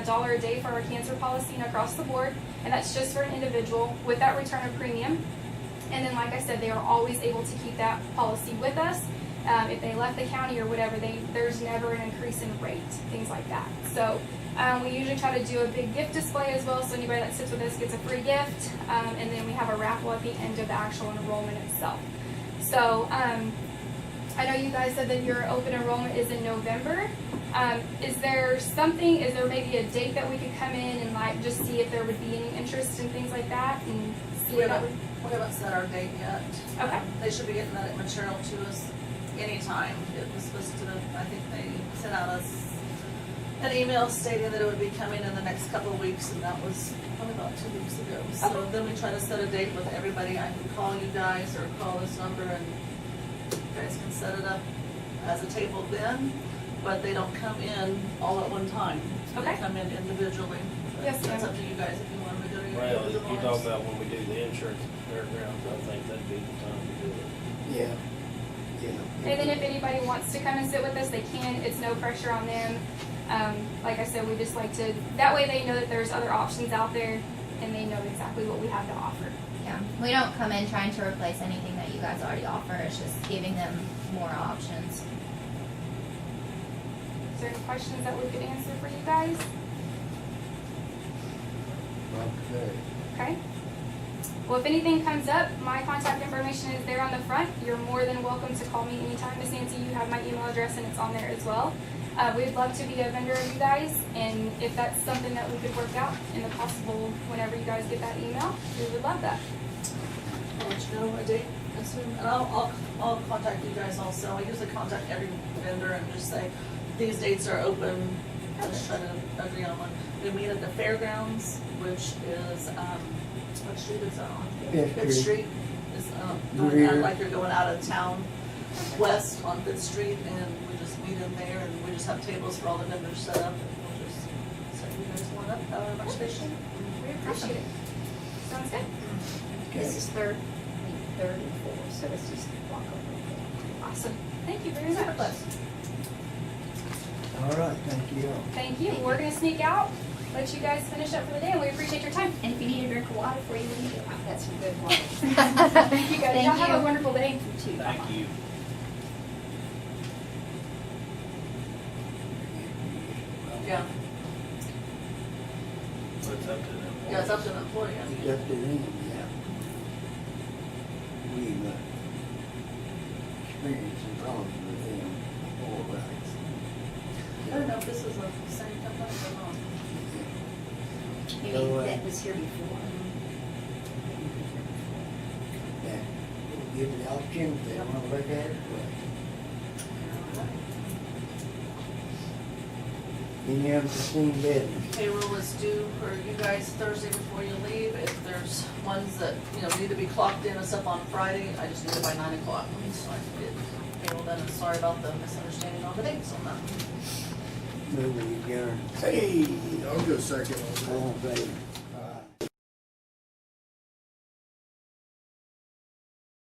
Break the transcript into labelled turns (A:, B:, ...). A: dollar a day for our cancer policy and across the board, and that's just for an individual with that return of premium. And then, like I said, they are always able to keep that policy with us. Um, if they left the county or whatever, they, there's never an increase in rate, things like that. So um, we usually try to do a big gift display as well, so anybody that sits with us gets a free gift, um, and then we have a raffle at the end of the actual enrollment itself. So um, I know you guys said that your open enrollment is in November. Um, is there something? Is there maybe a date that we could come in and like just see if there would be any interest in things like that and see
B: We
A: if that
B: haven't,
A: would?
B: we haven't set our date yet.
A: Okay.
B: They should be getting that material to us anytime. It was supposed to, I think they sent out us an email stating that it would be coming in the next couple of weeks, and that was probably about two weeks ago. So
A: Okay.
B: then we try to set a date with everybody. I can call you guys or call this number, and you guys can set it up as a table then, but they don't come in all at one time. They
A: Okay.
B: come in individually. But
A: Yes,
B: That's
A: ma'am.
B: up to you guys if you want to go to your
C: Well, if you
B: individual
C: talk
B: ones.
C: about when we do the insurance fairgrounds, I think that'd be the time to do it.
D: Yeah, yeah.
A: And then if anybody wants to come and sit with us, they can. It's no pressure on them. Um, like I said, we just like to, that way they know that there's other options out there and they know exactly what we have to offer.
E: Yeah, we don't come in trying to replace anything that you guys already offer. It's just giving them more options.
A: Is there any questions that we could answer for you guys?
D: Okay.
A: Okay. Well, if anything comes up, my contact information is there on the front. You're more than welcome to call me anytime, Miss Nancy. You have my email address and it's on there as well. Uh, we'd love to be a vendor of you guys, and if that's something that we could work out in the possible, whenever you guys get that email, we would love that.
B: I'll let you know a date as soon, and I'll, I'll, I'll contact you guys also. I usually contact every vendor and just say, these dates are open, i just try to agree on one. We meet at the fairgrounds, which is, um, what street is that on?
D: Fifth
B: Street
D: Street.
B: is, um, going
D: Greer.
B: out like you're going out of town west on Fifth Street, and we just meet in there, and we just have tables for all the vendors set up, and we'll just set you guys one up, however much they should.
A: We appreciate it. Sounds good?
F: This is third, third and fourth, so it's just walk over.
A: Awesome. Thank you very
E: Super
A: much.
E: close.
D: All right, thank you all.
A: Thank you. We're gonna sneak out, let you guys finish up for the day, and we appreciate your time.
F: And if you need a drink of water before you leave, I've got some good water.
A: Thank you guys. Y'all have a wonderful day.
F: You too. Bye-bye.
C: Thank you.
D: Mm-hmm.
B: Yeah,
C: So it's up to them.
B: yeah, it's up to the employee, I mean.
D: It's up to them, yeah. We've uh, experienced some problems with them all
B: I don't
D: right.
B: know if this is a same company or not.
F: Maybe
D: Go away.
F: that was here before.
D: Yeah, we'll give them the option if they want to look at it, but any unforeseen business.
B: Payroll is due for you guys Thursday before you leave. If there's ones that, you know, need to be clocked in and stuff on Friday, I just need it by nine o'clock. So I can get payroll done. And Sorry about the misunderstanding on the dates on that.
D: Move with your,
G: Hey, I'll go second on that.
D: all in favor?